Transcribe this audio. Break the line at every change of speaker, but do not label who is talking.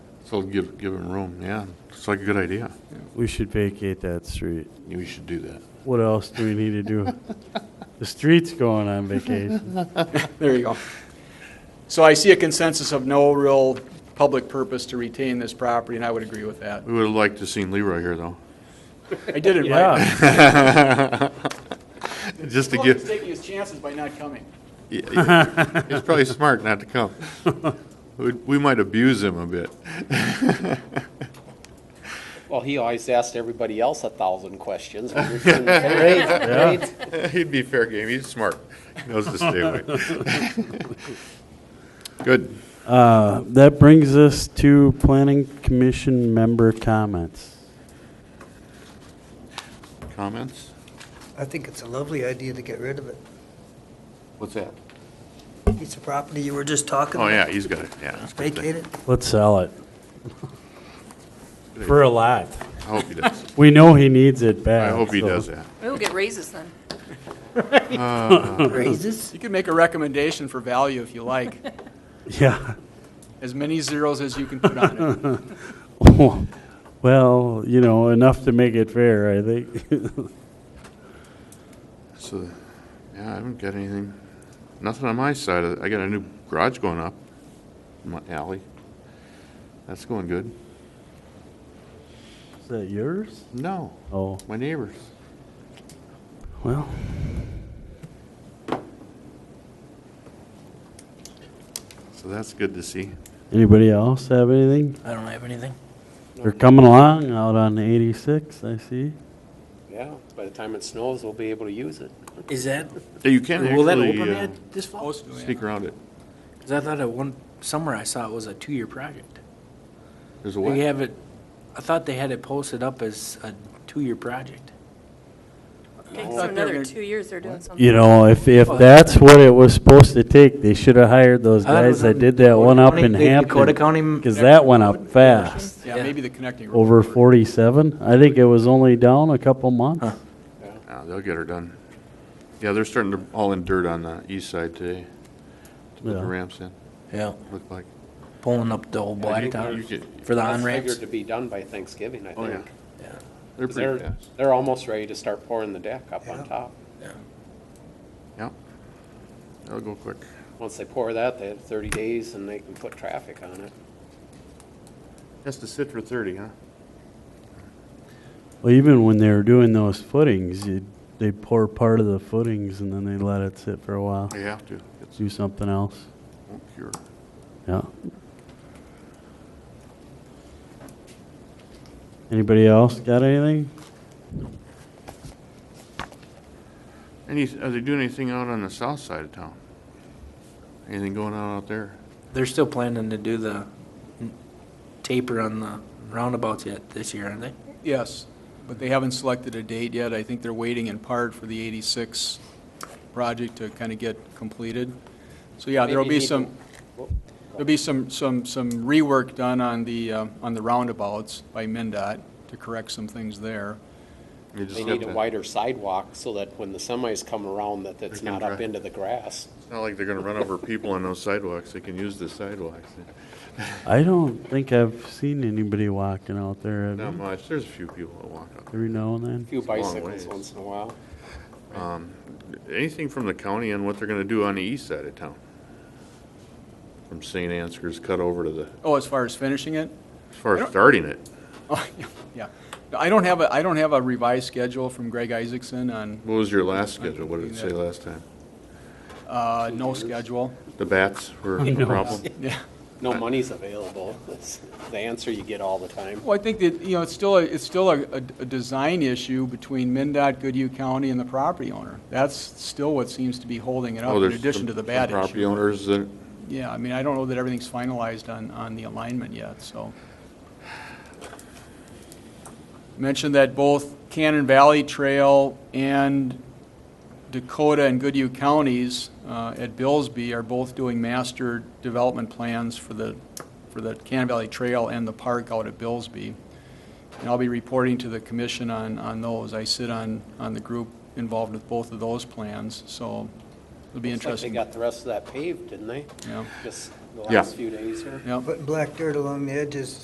So give, give him room, yeah. It's like a good idea.
We should vacate that street.
We should do that.
What else do we need to do? The street's going on vacation.
There you go. So I see a consensus of no real public purpose to retain this property, and I would agree with that.
We would have liked to seen Leroy here, though.
I did invite him.
Yeah,
Just to
He's
give,
taking his chances by not coming.
yeah, he's probably smart not to come. We- We might abuse him a bit.
Well, he always asked everybody else a thousand questions. when we were in the parade.
He'd be fair game, he's smart. He Knows to stay away. Good.
Uh, that brings us to planning commission member comments.
Comments?
I think it's a lovely idea to get rid of it.
What's that?
Piece of property you were just talking
Oh,
about.
yeah, he's got it, yeah.
Vacate it.
Let's sell it. For a lot.
I hope he does.
We know he needs it
I
back.
hope he
so-
does that.
We'll get raises then.
Raises.
You can make a recommendation for value if you like,
Yeah.
as many zeros as you can put on it.
Well, you know, enough to make it fair, I think.
So, yeah, I haven't got anything, nothing on my side. of it. I got a new garage going up in my alley. That's going good.
Is that yours?
No,
Oh,
my neighbors.
well,
So that's good to see.
anybody else have anything?
I don't have anything.
They're coming along out on 86, I see.
Yeah, by the time it snows, we'll be able to use it.
Is that,
Yeah, You can
will that
actually
open
uh,
that this fall?
Most of them, yeah.
sneak around it.
Because I thought at one, somewhere I saw it was a two-year project.
There's a
They
way.
have it, I thought they had it posted up as a two-year project.
Okay,
thought
so
they were
another
gonna-
two years they're doing something.
You know, if, if that's what it was supposed to take, they should have hired those
I thought it
guys
was
that
on
did that
Dakota
one up
County-
in
the Dakota
Hampton.
County.
Because that went up fast,
Yeah,
Yeah.
maybe the connecting road.
over 47. I think it was only down a couple months.
Yeah, Ah, They'll get her done. Yeah, they're starting to all in dirt on the east side today to put the
Yeah.
ramps in,
Yeah,
look like.
pulling up the old
Yeah, you- you
blacktop
could-
for the
That's
on-ramps.
figured to be done by Thanksgiving, I
Oh, yeah.
think.
They're
'Cause
pretty
They're,
fast.
they're almost ready to start pouring the deck up on top.
Yep. They'll go quick.
Once they pour that, they have thirty days and they can put traffic on it.
Has to sit for thirty, huh?
Well, even when they were doing those footings, you, they pour part of the footings and then they let it sit for a while,
They have to. It's
do something else.
won't cure.
Yeah. Anybody else got anything?
Any, are they doing anything out on the south side of town? Anything going on out there?
They're still planning to do the n- taper on the roundabouts yet this year, aren't they?
Yes, but they haven't selected a date yet. I think they're waiting in part for the 86 project to kind of get completed. So, yeah, there'll
Maybe
be
need-
some, there'll be some, some, some rework done on the, um, on the roundabouts by MinDOT to correct some things there.
You just
They
have
need a
to-
wider sidewalk so that when the semis come around, that it's
They can
not up
drive.
into the grass.
It's not like they're gonna run over people on those sidewalks. They can use the sidewalks.
I don't think I've seen anybody walking out there. have
Not
you?
much. There's a few people that walk out.
Every now and then.
A
a
Few
long
bicycles
ways.
once in a while.
Anything from the county on what they're gonna do on the east side of town? From St. Ansgar's cut over to the,
Oh, as far as finishing it?
as far as starting it.
Oh, yeah. I don't have a, I don't have a revised schedule from Greg Isaacson on,
What was your last schedule? What did it say last time?
uh, no schedule.
The bats were a problem?
Yeah.
No money's available. That's the answer you get all the time.
Well, I think that, you know, it's still, a- it's still a, a a design issue between MinDOT, Goodhue County, and the property owner. That's still what seems to be holding it up,
Oh,
in
there's
addition
some-
to the
some
bad
Property
issue.
owners that,
Yeah, I mean, I don't know that everything's finalized on, on the alignment yet, so. Mentioned that both Cannon Valley Trail and Dakota and Goodhue counties uh, at Billsby are both doing master development plans for the, for the Cannon Valley Trail and the park out at Billsby. And I'll be reporting to the commission on, on those. I sit on, on the group involved with both of those plans, so it'll be
Looks like they
interesting.
got the rest of that paved, didn't they?
Yeah.
Just the
Yeah.
last few days here.
Yep.
Putting black dirt along the edges